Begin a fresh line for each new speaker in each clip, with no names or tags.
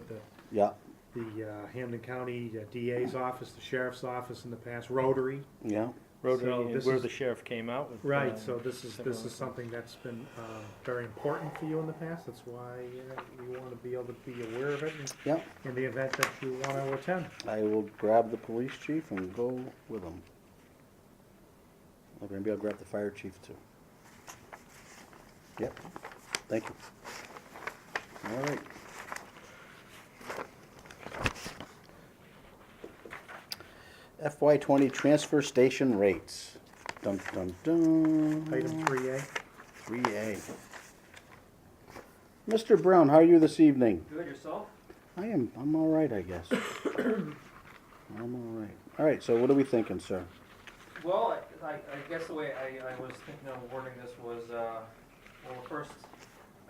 the,
yeah,
the uh, Hampton County uh, DA's office, the sheriff's office in the past, Rotary.
yeah.
So
Rotary,
this
where
is-
the sheriff came out with.
Right,
uh,
um,
so this is, this
similar-
is something that's been um, very important for you in the past, that's why uh, you want to be able to be aware of it in-
Yeah,
in the event that you want to attend.
I will grab the police chief and go with him. Or maybe I'll grab the fire chief too. Yep, thank you. All right. FY twenty transfer station rates. Dum, dum, dum.
Item three A,
Three A. Mr. Brown, how are you this evening?
Good yourself?
I am, I'm all right, I guess. I'm all right. All right, so what are we thinking, sir?
Well, I, I I guess the way I, I was thinking of wording this was, uh, well, first,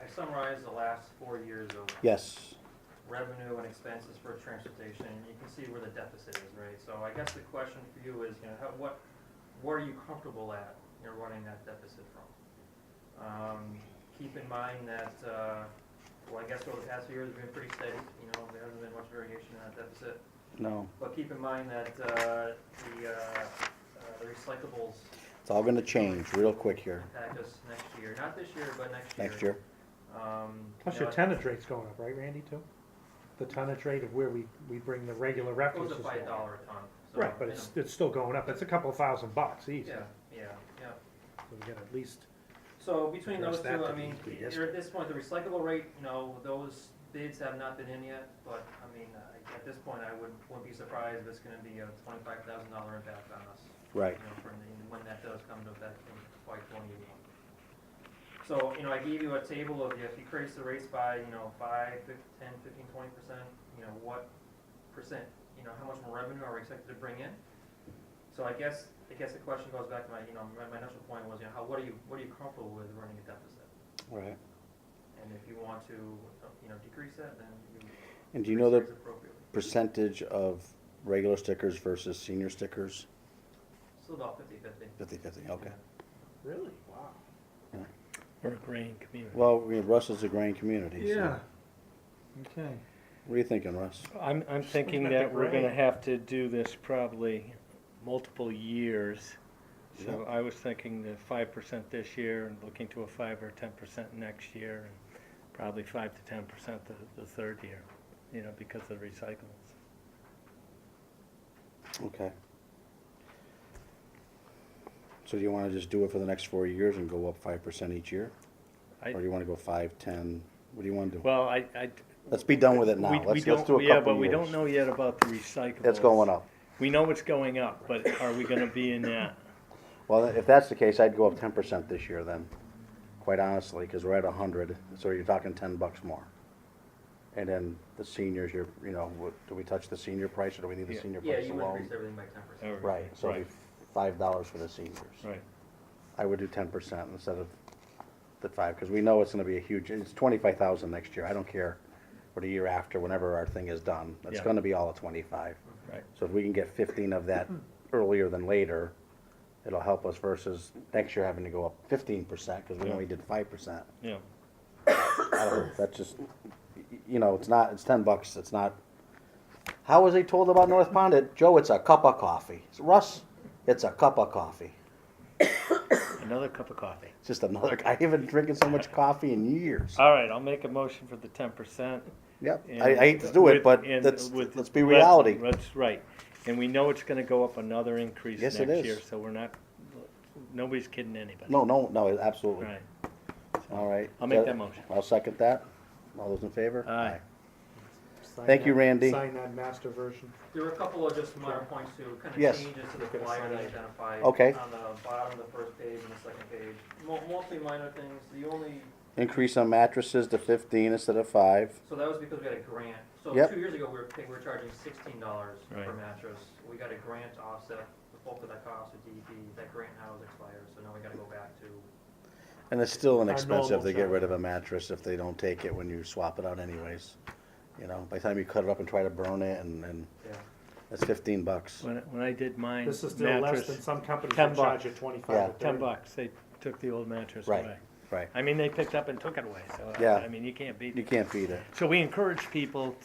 I summarized the last four years of
Yes,
revenue and expenses for transportation, and you can see where the deficit is, right? So I guess the question for you is, you know, how, what, what are you comfortable at, you're running that deficit from? Um, keep in mind that, uh, well, I guess over the past few years, it's been pretty steady, you know, there hasn't been much variation in that deficit.
no,
But keep in mind that, uh, the, uh, uh, the recyclables
it's all gonna change real quick here,
impact us next year, not this year, but next year.
next year.
Um,
plus
you
your
know,
tonnage rate's going up, right, Randy, too? The tonnage rate of where we, we bring the regular
It
refuse
was
is
a
going
five
up.
dollar a ton. so,
Right, but
you
it's,
know,
it's still going up, it's a couple thousand bucks easy,
Yeah, yeah, yeah.
so we got at least,
So between
Address
those two,
that to
I
the-
mean,
the
you're at this point, the recyclable rate, you know, those bids have not been in yet, but, I mean, I- at this point, I wouldn't, wouldn't be surprised if it's gonna be a twenty-five thousand dollar impact on us.
Right,
you know, for the- when that does come to effect in FY twenty-one. So, you know, I gave you a table of if you increase the rates by, you know, five, fif- ten, fifteen, twenty percent, you know, what percent, you know, how much more revenue are we expected to bring in? So I guess, I guess the question goes back to my, you know, my, my initial point was, you know, how, what are you, what are you comfortable with running a deficit?
right.
And if you want to, you know, decrease that, then you.
And do you know the
decrease rates appropriately.
percentage of regular stickers versus senior stickers?
Still about fifty-fifty.
Fifty-fifty, okay.
really, wow.
Or a grain community.
Well, we- Russell's a growing community, so.
Yeah, okay.
What are you thinking, Russ?
I'm, I'm thinking
looking at
that
the
we're gonna
grain.
have to do this probably multiple years. So
Yep.
I was thinking the five percent this year and looking to a five or ten percent next year and probably five to ten percent the, the third year, you know, because of recyclables.
Okay. So do you wanna just do it for the next four years and go up five percent each year?
I-
Or do you wanna go five, ten? What do you wanna do?
Well, I, I.
Let's be done with it now.
we- we
Let's, let's
don't-
do a couple
Yeah, but we
years.
don't know yet about the recyclables.
It's going up.
We know it's going up, but are we gonna be in that?
Well, if that's the case, I'd go up ten percent this year then, quite honestly, because we're at a hundred, so you're talking ten bucks more. And then the seniors, you're, you know, what- do we touch the senior price or do we need the
Yeah.
senior
Yeah,
price
you
alone?
increase everything by ten percent.
Right, so it'd
Right,
be five dollars for the seniors.
right.
I would do ten percent instead of the five, because we know it's gonna be a huge, it's twenty-five thousand next year, I don't care. Or the year after, whenever our thing is done, it's
Yeah.
gonna be all at twenty-five.
Right.
So if we can get fifteen of
Hmm.
that earlier than later, it'll help us versus next year having to go up fifteen percent, because we
Yeah.
only did five percent.
Yeah,
I don't know, that's just, y- y- you know, it's not, it's ten bucks, it's not. How was he told about North Pond? It- Joe, it's a cup of coffee. Russ, it's a cup of coffee.
another cup of coffee.
It's just another, I haven't been drinking so much coffee in years.
All right, I'll make a motion for the ten percent.
Yep, I, I hate to do it, but let's, let's be reality.
That's right, and we know it's gonna go up another increase
Yes,
next
it is.
year, so we're not, nobody's kidding anybody.
No, no, no, absolutely.
Right,
All right.
I'll make that motion.
I'll second that. All those in favor?
Aye.
Sign
Thank you,
that-
Randy.
Sign that master version.
There were a couple of just minor points to kind
Yes.
of changes to the
Gonna
flyer that I
sign it.
identified.
Okay.
On the bottom of the first page and the second page. Mo- Mostly minor things. The only,
Increase on mattresses to fifteen instead of five.
so that was because we had a grant. So
Yep.
two years ago, we were, pay- we were charging sixteen dollars per
Right.
mattress. We got a grant to offset the bulk of that cost with DEP. That grant now is expired, so now we gotta go back to,
And it's still
Our
inexpensive
normal
to get
charge.
rid of a mattress if they don't take it when you swap it out anyways. You know, by the time you cut it up and try to burn it and, and
yeah.
that's fifteen bucks.
when, when I did mine,
This is still less than
mattress,
some companies
Ten
that charge
bucks.
you
Yeah.
twenty-five or
ten
thirty.
bucks, they took the old mattress
Right.
away.
Right.
I mean, they picked up and took it away, so,
Yeah.
I- I mean, you can't beat
You
it.
can't beat it.
So we encourage people